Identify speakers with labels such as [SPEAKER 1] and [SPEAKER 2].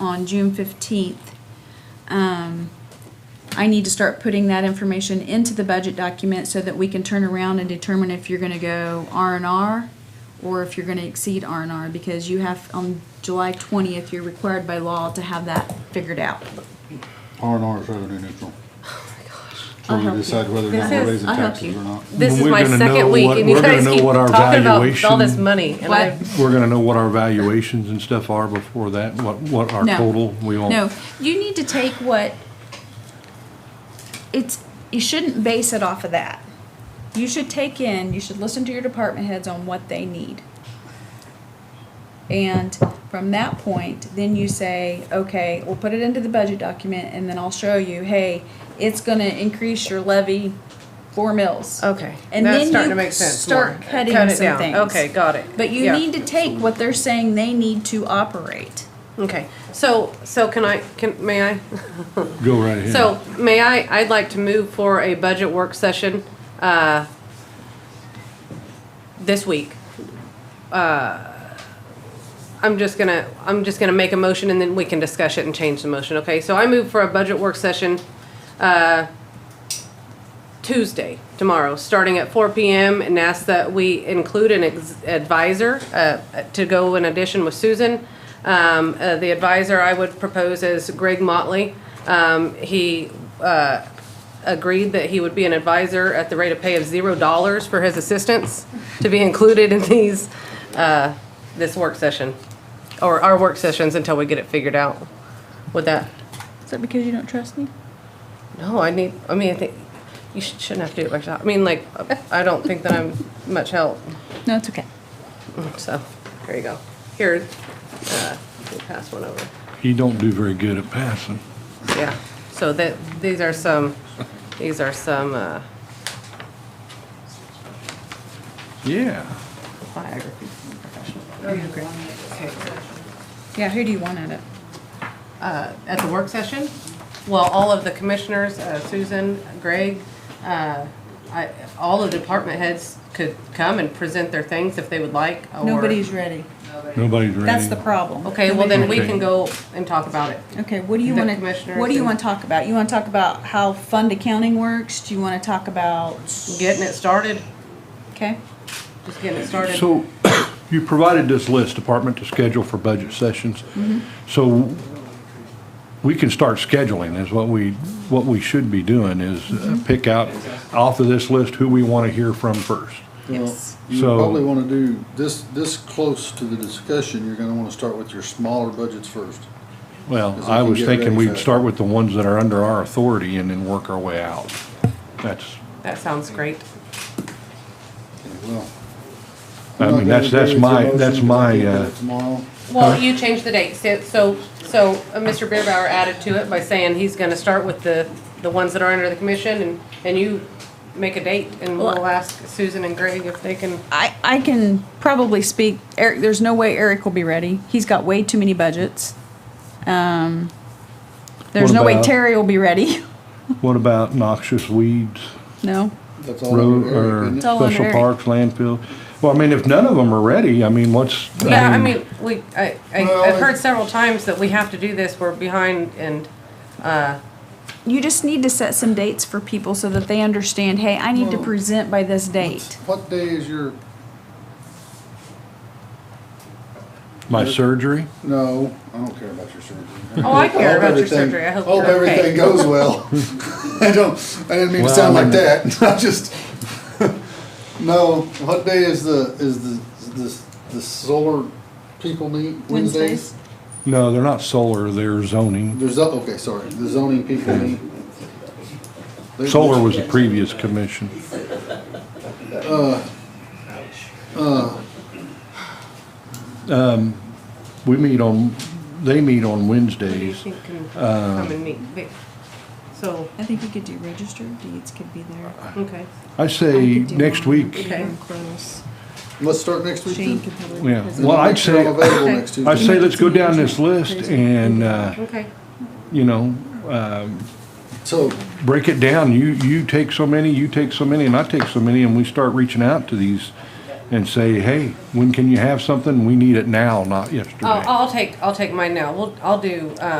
[SPEAKER 1] on June fifteenth, um, I need to start putting that information into the budget document so that we can turn around and determine if you're gonna go R and R or if you're gonna exceed R and R, because you have, on July twentieth, you're required by law to have that figured out.
[SPEAKER 2] R and R is revenue neutral. So
[SPEAKER 1] Oh I'll
[SPEAKER 2] we
[SPEAKER 1] help you.
[SPEAKER 2] decide whether or not
[SPEAKER 3] This
[SPEAKER 2] we're
[SPEAKER 3] is-
[SPEAKER 2] raising
[SPEAKER 1] I'll help
[SPEAKER 2] taxes
[SPEAKER 1] you.
[SPEAKER 2] or not.
[SPEAKER 3] This
[SPEAKER 4] When
[SPEAKER 3] is
[SPEAKER 4] we're
[SPEAKER 3] my
[SPEAKER 4] gonna
[SPEAKER 3] second
[SPEAKER 4] know
[SPEAKER 3] week,
[SPEAKER 4] what-
[SPEAKER 3] and you
[SPEAKER 4] we're gonna
[SPEAKER 3] guys
[SPEAKER 4] know
[SPEAKER 3] keep
[SPEAKER 4] what our
[SPEAKER 3] talking about all
[SPEAKER 4] valuation-
[SPEAKER 3] this money, and I,
[SPEAKER 4] We're gonna know what our valuations and stuff are before that, what, what our
[SPEAKER 1] No.
[SPEAKER 4] total, we won't.
[SPEAKER 1] No, you need to take what, it's, you shouldn't base it off of that. You should take in, you should listen to your department heads on what they need. And from that point, then you say, okay, we'll put it into the budget document and then I'll show you, hey, it's gonna increase your levy four mils.
[SPEAKER 3] okay,
[SPEAKER 1] And
[SPEAKER 3] that's
[SPEAKER 1] then
[SPEAKER 3] starting
[SPEAKER 1] you
[SPEAKER 3] to make sense.
[SPEAKER 1] start
[SPEAKER 3] more.
[SPEAKER 1] cutting
[SPEAKER 3] Cut it
[SPEAKER 1] some
[SPEAKER 3] down.
[SPEAKER 1] things.
[SPEAKER 3] Okay, got it.
[SPEAKER 1] But you
[SPEAKER 3] Yeah.
[SPEAKER 1] need to take what they're saying they need to operate.
[SPEAKER 3] Okay, so, so can I, can, may I?
[SPEAKER 4] Go right ahead.
[SPEAKER 3] So, may I, I'd like to move for a budget work session, uh, this week. Uh, I'm just gonna, I'm just gonna make a motion and then we can discuss it and change the motion, okay? So I move for a budget work session, uh, Tuesday, tomorrow, starting at four PM and ask that we include an ex- advisor, uh, to go in addition with Susan. Um, uh, the advisor I would propose is Greg Motley. Um, he, uh, agreed that he would be an advisor at the rate of pay of zero dollars for his assistance to be included in these, uh, this work session, or our work sessions until we get it figured out. Would that
[SPEAKER 1] Is that because you don't trust me?
[SPEAKER 3] no, I need, I mean, I think, you sh- shouldn't have to do it myself. I mean, like, I don't think that I'm much help,
[SPEAKER 1] No, it's okay.
[SPEAKER 3] so, here you go. Here, uh, we'll pass one over.
[SPEAKER 4] You don't do very good at passing.
[SPEAKER 3] Yeah, so that, these are some, these are some, uh,
[SPEAKER 4] Yeah.
[SPEAKER 3] biographies. from professional-
[SPEAKER 1] Yeah, who do you want at it?
[SPEAKER 3] Uh, at the work session, well, all of the commissioners, uh, Susan, Greg, uh, I, all the department heads could come and present their things if they would like, or.
[SPEAKER 1] Nobody's ready.
[SPEAKER 4] Nobody's ready.
[SPEAKER 1] That's the problem.
[SPEAKER 3] Okay, well, then we
[SPEAKER 4] Okay.
[SPEAKER 3] can go and talk about it.
[SPEAKER 1] Okay, what do you
[SPEAKER 3] The
[SPEAKER 1] want to,
[SPEAKER 3] commissioners
[SPEAKER 1] what do you
[SPEAKER 3] and-
[SPEAKER 1] want to talk about? You want to talk about how fund accounting works? Do you want to talk about,
[SPEAKER 3] getting it started,
[SPEAKER 1] okay?
[SPEAKER 3] just getting it started.
[SPEAKER 4] So you provided this list, department to schedule for budget sessions.
[SPEAKER 3] Mm-hmm.
[SPEAKER 4] So we can start scheduling is what we, what we should be doing is
[SPEAKER 3] Mm-hmm.
[SPEAKER 4] uh, pick out off of this list who we want to hear from first.
[SPEAKER 1] Yes.
[SPEAKER 2] You
[SPEAKER 4] So-
[SPEAKER 2] probably wanna do, this, this close to the discussion, you're gonna wanna start with your smaller budgets first.
[SPEAKER 4] Well,
[SPEAKER 2] Because we
[SPEAKER 4] I
[SPEAKER 2] can
[SPEAKER 4] was
[SPEAKER 2] get
[SPEAKER 4] thinking
[SPEAKER 2] ready
[SPEAKER 4] we'd
[SPEAKER 2] for-
[SPEAKER 4] start with the ones that are under our authority and then work our way out. That's,
[SPEAKER 3] That sounds great.
[SPEAKER 2] Okay, well, I'm
[SPEAKER 4] I
[SPEAKER 2] not
[SPEAKER 4] mean,
[SPEAKER 2] gonna
[SPEAKER 4] that's, that's
[SPEAKER 2] agree with your
[SPEAKER 4] my,
[SPEAKER 2] motion
[SPEAKER 4] that's
[SPEAKER 2] 'cause I
[SPEAKER 4] my,
[SPEAKER 2] can't do
[SPEAKER 4] uh,
[SPEAKER 2] it Tomorrow,
[SPEAKER 3] Well, you changed the date, so, so, so uh, Mr. Beerbauer added to it by saying he's gonna start with the, the ones that are under the commission, and, and you make a date, and we'll
[SPEAKER 1] Well-
[SPEAKER 3] ask Susan and Greg if they can,
[SPEAKER 1] I, I can probably speak, Eric, there's no way Eric will be ready. He's got way too many budgets. Um, there's
[SPEAKER 4] What
[SPEAKER 1] no way
[SPEAKER 4] about-
[SPEAKER 1] Terry will be ready.
[SPEAKER 4] what about noxious weeds?
[SPEAKER 1] No?
[SPEAKER 2] that's all.
[SPEAKER 4] Road
[SPEAKER 2] under Eric,
[SPEAKER 4] or
[SPEAKER 2] isn't it?
[SPEAKER 1] It's all under
[SPEAKER 4] special
[SPEAKER 1] Eric.
[SPEAKER 4] parks, landfill? Well, I mean, if none of them are ready, I mean, what's?
[SPEAKER 3] yeah, I mean, we, I, I-
[SPEAKER 2] Well,
[SPEAKER 3] I've heard
[SPEAKER 2] it-
[SPEAKER 3] several times that we have to do this, we're behind, and, uh,
[SPEAKER 1] You just need to set some dates for people so that they understand, hey, I need to
[SPEAKER 2] Well,
[SPEAKER 1] present by this date.
[SPEAKER 2] What day is your,
[SPEAKER 4] My surgery?
[SPEAKER 2] no, I don't care about your surgery.
[SPEAKER 3] oh, I
[SPEAKER 2] Hope
[SPEAKER 3] care about your
[SPEAKER 2] everything-
[SPEAKER 3] surgery, I hope
[SPEAKER 2] Hope
[SPEAKER 3] you're
[SPEAKER 2] everything
[SPEAKER 3] okay.
[SPEAKER 2] goes well. I don't, I didn't mean to
[SPEAKER 4] Well,
[SPEAKER 2] sound like
[SPEAKER 4] I mean-
[SPEAKER 2] that, I just, no, what day is the, is the, is the, the solar people meet?
[SPEAKER 1] Wednesdays.
[SPEAKER 4] No, they're not solar, they're zoning.
[SPEAKER 2] There's, zo- okay, sorry, the zoning people meet. They-
[SPEAKER 4] Solar was the previous commission.
[SPEAKER 2] Uh,
[SPEAKER 4] Um, We meet on, they meet on
[SPEAKER 3] Who do you
[SPEAKER 4] Wednesdays.
[SPEAKER 3] think can come and meet? They- So,
[SPEAKER 1] I think you could do register deeds could be there.
[SPEAKER 3] okay,
[SPEAKER 4] I
[SPEAKER 1] I
[SPEAKER 4] say
[SPEAKER 1] could do
[SPEAKER 4] next
[SPEAKER 1] mine.
[SPEAKER 4] week,
[SPEAKER 3] Okay.
[SPEAKER 1] Close.
[SPEAKER 2] Let's start next week
[SPEAKER 1] Shane
[SPEAKER 2] then.
[SPEAKER 1] could probably.
[SPEAKER 4] Yeah.
[SPEAKER 1] present.
[SPEAKER 2] And
[SPEAKER 4] Well,
[SPEAKER 2] I'll
[SPEAKER 4] I'd
[SPEAKER 2] make sure I'm
[SPEAKER 4] say-
[SPEAKER 2] Available next
[SPEAKER 4] I
[SPEAKER 2] Tuesday.
[SPEAKER 4] say let's go down this list and, uh,
[SPEAKER 3] okay.
[SPEAKER 4] you know, um,
[SPEAKER 2] So,
[SPEAKER 4] break it down. You, you take so many, you take so many, and I take so many, and we start reaching out to these and say, hey, when can you have something? We need it now, not yesterday.
[SPEAKER 3] Oh, I'll, I'll take, I'll take mine now. We'll, I'll do, uh,